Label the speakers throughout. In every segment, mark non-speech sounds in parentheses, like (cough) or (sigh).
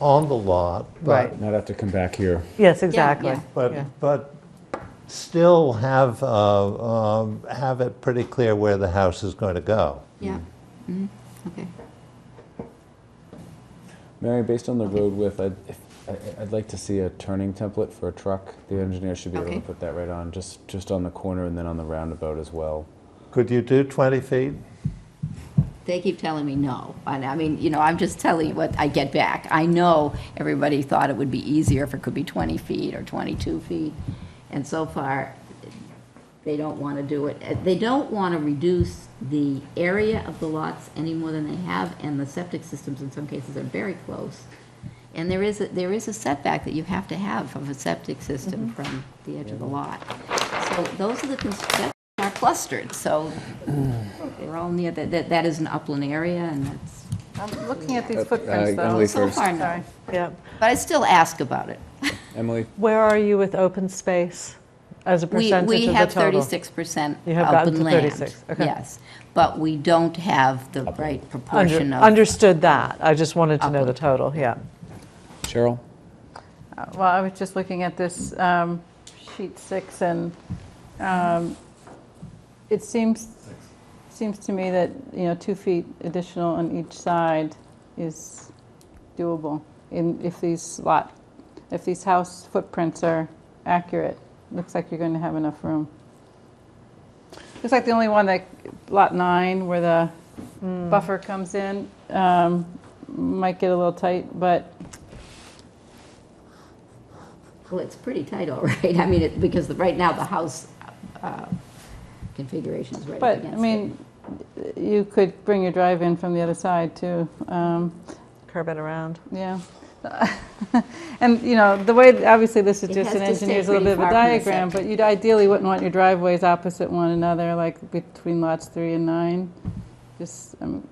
Speaker 1: on the lot, but,
Speaker 2: Right.
Speaker 3: Not have to come back here.
Speaker 2: Yes, exactly.
Speaker 4: yeah.
Speaker 2: Yeah.
Speaker 1: but, but still have, uh, um, have it pretty clear where the house is going to go.
Speaker 4: Yeah, Mm, okay.
Speaker 3: Mary, based on the road width, I'd, if, I- I'd like to see a turning template for a truck. The engineer should be able to
Speaker 4: Okay.
Speaker 3: put that right on, just, just on the corner and then on the roundabout as well.
Speaker 1: Could you do 20 feet?
Speaker 4: They keep telling me no, and I mean, you know, I'm just telling you what I get back. I know everybody thought it would be easier if it could be 20 feet or 22 feet, and so far, they don't want to do it. Uh, They don't want to reduce the area of the lots any more than they have, and the septic systems in some cases are very close. And there is, a- there is a setback that you have to have of a septic system from the edge of the lot. So those are the, cons- that are clustered, so they're all near, that, that that is an upland area, and that's,
Speaker 5: I'm looking at these
Speaker 3: uh,
Speaker 5: footprints, though. (laughs)
Speaker 3: Emily-
Speaker 4: so
Speaker 3: first.
Speaker 4: far, no.
Speaker 5: Sorry.
Speaker 2: Yeah.
Speaker 4: But I still ask about it.
Speaker 3: Emily,
Speaker 2: Where are you with open space as a
Speaker 4: We,
Speaker 2: percentage of
Speaker 4: we
Speaker 2: the
Speaker 4: have
Speaker 2: total?
Speaker 4: thirty-six percent
Speaker 2: You have gotten
Speaker 4: open
Speaker 2: to
Speaker 4: land.
Speaker 2: 36, okay.
Speaker 4: Yes, but we don't have the right
Speaker 2: Under-
Speaker 4: proportion of.
Speaker 2: Understood that. I just wanted to know the
Speaker 4: Upland.
Speaker 2: total, yeah.
Speaker 3: Cheryl?
Speaker 5: Uh, Well, I was just looking at this um, sheet six, and um, it seems, seems to me that, you know, two feet additional on each side is doable in, if these lot, if these house footprints are accurate. Looks like you're going to have enough room. Looks like the only one that, lot nine, where the buffer comes in, um, might get a little tight, but
Speaker 4: Well, it's pretty tight, all right. (laughs) I mean, it, because the- right now, the house uh, configuration is right up
Speaker 5: But,
Speaker 4: against
Speaker 5: I
Speaker 4: it.
Speaker 5: mean, you could bring your drive in from the other side, too. Um,
Speaker 2: Curb it around.
Speaker 5: Yeah. (laughs) And, you know, the way, obviously, this is
Speaker 4: It
Speaker 5: just
Speaker 4: has
Speaker 5: an
Speaker 4: to stay
Speaker 5: engineer's little bit
Speaker 4: pretty
Speaker 5: of a
Speaker 4: far from the
Speaker 5: diagram, but
Speaker 4: septic.
Speaker 5: you'd ideally wouldn't want your driveways opposite one another, like between lots three and nine. Just, um,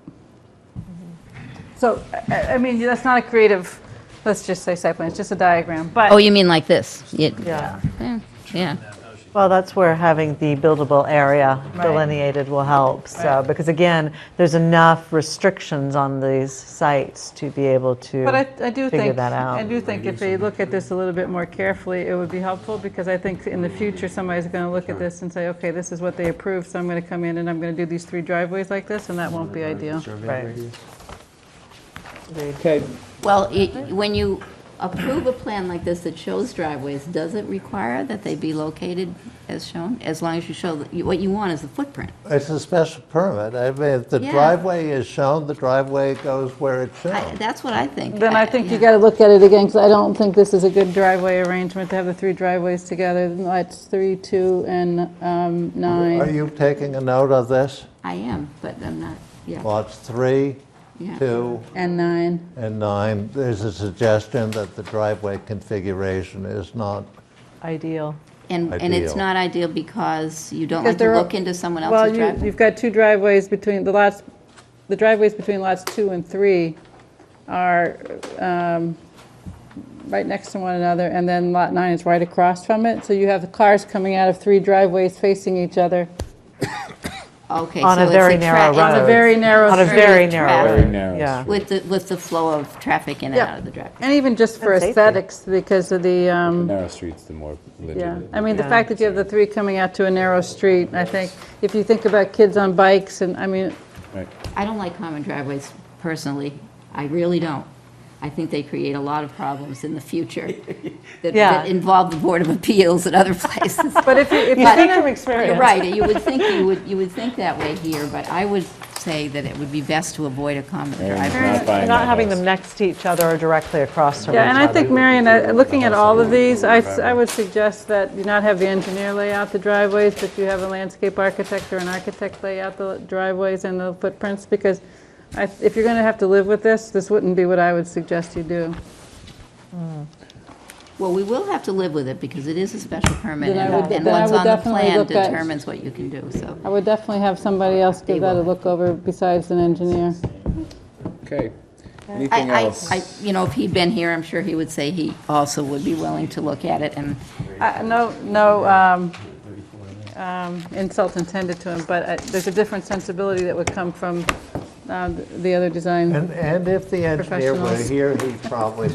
Speaker 4: Mm-hmm.
Speaker 5: so, I- I I mean, that's not a creative, let's just say site plan, it's just a diagram, but.
Speaker 4: Oh, you mean like this? It-
Speaker 2: Yeah.
Speaker 4: Yeah, yeah.
Speaker 2: Well, that's where having the buildable area
Speaker 5: Right.
Speaker 2: delineated will help, so,
Speaker 5: Right.
Speaker 2: because again, there's enough restrictions on these sites to be able to
Speaker 5: But I, I do
Speaker 2: figure
Speaker 5: think,
Speaker 2: that
Speaker 5: I
Speaker 2: out.
Speaker 5: do think if they look at this a little bit more carefully, it would be helpful, because I think in the future, somebody's going to look at this and say, okay, this is what they approved, so I'm going to come in and I'm going to do these three driveways like this, and that won't be ideal.
Speaker 2: Right. Agreed.
Speaker 3: Okay.
Speaker 4: Well, it- when you approve a plan like this that shows driveways, does it require that they be located as shown? As long as you show, that you- what you want is the footprint.
Speaker 1: It's a special permit. I mean, if the
Speaker 4: Yeah.
Speaker 1: driveway is shown, the driveway goes where it's
Speaker 4: I-
Speaker 1: shown.
Speaker 4: That's what I think.
Speaker 5: Then I think
Speaker 4: yeah.
Speaker 5: you got to look at it again, because I don't think this is a good driveway arrangement to have the three driveways together, lots three, two, and um,
Speaker 1: Are
Speaker 5: nine.
Speaker 1: you taking a note of this?
Speaker 4: I am, but I'm not, yeah,
Speaker 1: Lots three,
Speaker 4: yeah.
Speaker 1: two,
Speaker 5: And nine.
Speaker 1: and nine. There's a suggestion that the driveway configuration is not
Speaker 2: Ideal.
Speaker 4: And, and it's
Speaker 1: Ideal.
Speaker 4: not ideal because you don't
Speaker 5: Because
Speaker 4: like to
Speaker 5: there are-
Speaker 4: look into someone
Speaker 5: Well,
Speaker 4: else's
Speaker 5: you-
Speaker 4: driveway.
Speaker 5: you've got two driveways between, the lots, the driveways between lots two and three are um, right next to one another, and then lot nine is right across from it, so you have the cars coming out of three driveways facing each other.
Speaker 4: Okay,
Speaker 2: On
Speaker 4: so
Speaker 2: a
Speaker 4: it's
Speaker 2: very
Speaker 4: tra-
Speaker 2: narrow
Speaker 4: it's
Speaker 2: road.
Speaker 5: It's a very narrow
Speaker 2: On a
Speaker 5: street.
Speaker 2: very narrow.
Speaker 4: Very
Speaker 3: narrow
Speaker 2: Yeah.
Speaker 4: With the, with the flow of traffic in and
Speaker 5: Yep.
Speaker 4: out of the driveway.
Speaker 5: And even just for
Speaker 2: And safety.
Speaker 5: aesthetics, because of the, um,
Speaker 3: Narrow streets, the more
Speaker 5: Yeah,
Speaker 3: legitimate.
Speaker 5: I mean, the fact that you have the three coming out to a narrow street, I think, if you think about kids on bikes, and, I mean,
Speaker 3: Right.
Speaker 4: I don't like common driveways personally. I really don't. I think they create a lot of problems in the future that-
Speaker 2: Yeah.
Speaker 4: that involve the Board of Appeals and other places.
Speaker 5: (laughs) but if you, if
Speaker 2: You
Speaker 5: you're
Speaker 2: speak from
Speaker 5: gonna,
Speaker 2: experience.
Speaker 4: You're right, you would think, you would, you would think that way here, but I would say that it would be best to avoid a common
Speaker 3: Mary's
Speaker 4: driveway.
Speaker 3: not buying
Speaker 2: Not
Speaker 3: that
Speaker 2: having
Speaker 3: house.
Speaker 2: them next to each other or directly across from each
Speaker 5: yeah, and
Speaker 2: other.
Speaker 5: I think, Marion, uh, looking at all of these, I, s- I would suggest that you not have the engineer lay out the driveways, but you have a landscape architect or an architect lay out the driveways and the footprints, because I, if you're gonna have to live with this, this wouldn't be what I would suggest you do.
Speaker 4: Well, we will have to live with it because it is a special permit
Speaker 5: Then I
Speaker 4: and
Speaker 5: would-
Speaker 4: and
Speaker 5: then I
Speaker 4: what's
Speaker 5: would
Speaker 4: on the
Speaker 5: definitely
Speaker 4: plan
Speaker 5: look at-
Speaker 4: determines what you can do, so.
Speaker 5: I would definitely have somebody else give that a look over besides an engineer.
Speaker 3: Okay. Anything
Speaker 4: I, I,
Speaker 3: else?
Speaker 4: I, you know, if he'd been here, I'm sure he would say he also would be willing to look at it and
Speaker 5: I- Uh, No, no um, um, insult intended to him, but uh, there's a different sensibility that would come from um, the other design.
Speaker 1: And, and if the engineer were
Speaker 5: Professionals.
Speaker 1: here, he'd probably